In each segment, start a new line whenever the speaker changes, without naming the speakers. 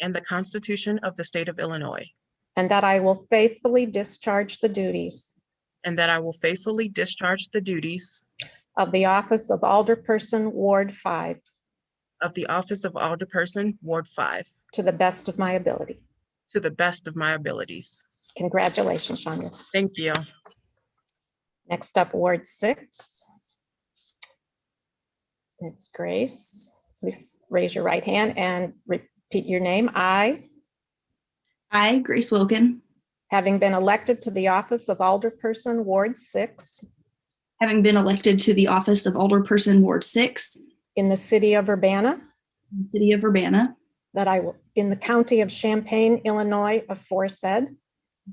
and the Constitution of the State of Illinois,
and that I will faithfully discharge the duties
and that I will faithfully discharge the duties
of the office of Alderperson, Ward 5,
of the office of Alderperson, Ward 5,
to the best of my ability.
to the best of my abilities.
Congratulations, Shanya.
Thank you.
Next up, Ward 6. It's Grace. Please raise your right hand and repeat your name. I,
I, Grace Wilkin,
having been elected to the office of Alderperson, Ward 6,
having been elected to the office of Alderperson Ward 6
in the city of Urbana,
in the city of Urbana,
that I will, in the county of Champaign, Illinois, aforesaid,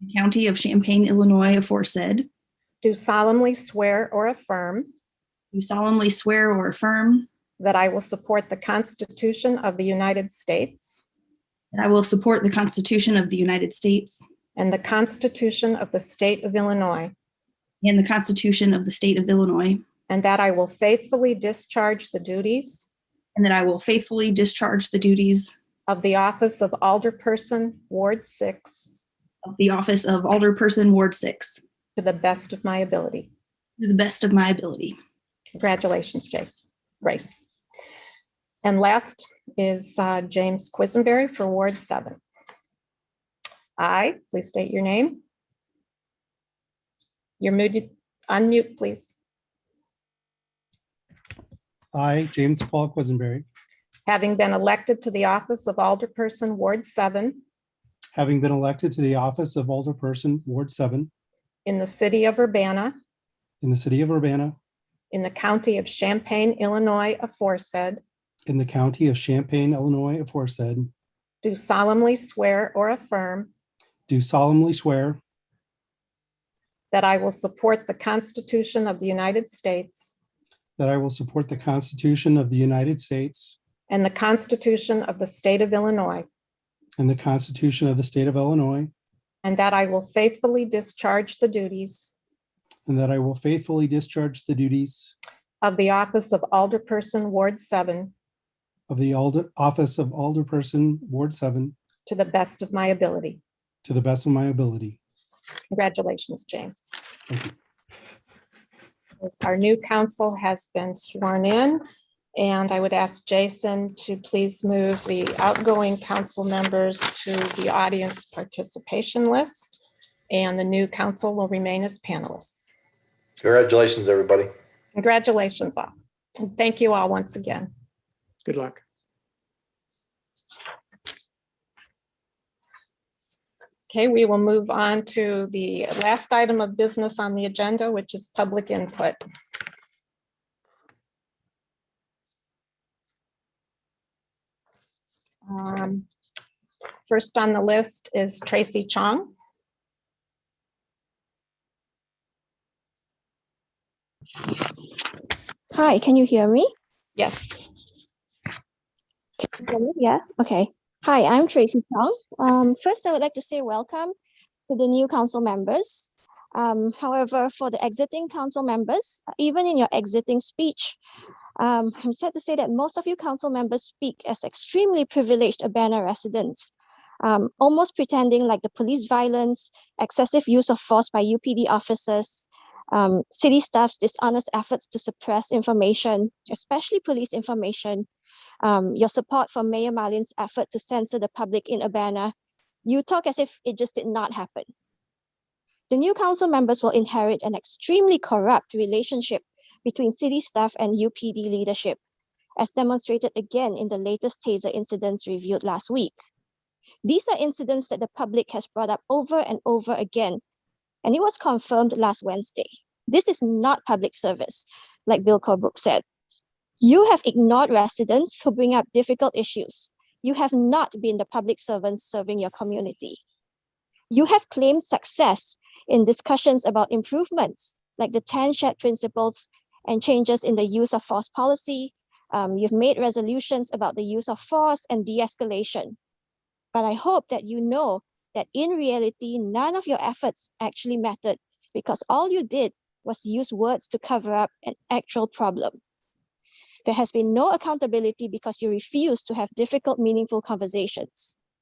the county of Champaign, Illinois, aforesaid,
do solemnly swear or affirm
do solemnly swear or affirm
that I will support the Constitution of the United States
that I will support the Constitution of the United States
and the Constitution of the State of Illinois,
and the Constitution of the state of Illinois,
and that I will faithfully discharge the duties
and that I will faithfully discharge the duties
of the office of Alderperson, Ward 6,
of the office of Alderperson Ward 6
to the best of my ability.
to the best of my ability.
Congratulations, Jace, Grace. And last is uh, James Quisenberry for Ward 7. I, please state your name. You're muted, unmute, please.
I, James Paul Quisenberry,
Having been elected to the office of Alderperson, Ward 7,
having been elected to the office of Alderperson, Ward 7,
in the city of Urbana,
in the city of Urbana,
in the county of Champaign, Illinois, aforesaid,
in the county of Champaign, Illinois, aforesaid,
do solemnly swear or affirm
do solemnly swear
that I will support the Constitution of the United States
that I will support the Constitution of the United States
and the Constitution of the state of Illinois,
and the Constitution of the state of Illinois,
and that I will faithfully discharge the duties
and that I will faithfully discharge the duties
of the office of Alderperson, Ward 7,
of the Alder- office of Alderperson, Ward 7,
to the best of my ability.
to the best of my ability.
Congratulations, James.
Thank
Our new council has been sworn in, and I would ask Jason to please move the outgoing council members to the audience participation list, and the new council will remain as panelists.
Congratulations, everybody.
Congratulations all, and thank you all once again.
Good luck.
Okay, we will move on to the last item of business on the agenda, which is public input. Um, First on the list is Tracy Chong.
Hi, can you hear me?
Yes,
Can you hear me? Yeah, okay. Hi, I'm Tracy Chong. Um, first, I would like to say welcome to the new council members. Um, however, for the exiting council members, even in your exiting speech, um, I'm sad to say that most of you council members speak as extremely privileged Urbana residents, um, almost pretending like the police violence, excessive use of force by UPD officers, um, city staff's dishonest efforts to suppress information, especially police information, um, your support for Mayor Marlin's effort to censor the public in Urbana, you talk as if it just did not happen. The new council members will inherit an extremely corrupt relationship between city staff and UPD leadership, as demonstrated again in the latest taser incidents reviewed last week. These are incidents that the public has brought up over and over again, and it was confirmed last Wednesday. This is not public service, like Bill Corbrook said. You have ignored residents who bring up difficult issues. You have not been the public servants serving your community. You have claimed success in discussions about improvements like the 10 shared principles and changes in the use of force policy. Um, you've made resolutions about the use of force and de escalation. But I hope that you know that in reality, none of your efforts actually mattered because all you did was use words to cover up an actual problem. There has been no accountability because you refuse to have difficult, meaningful conversations.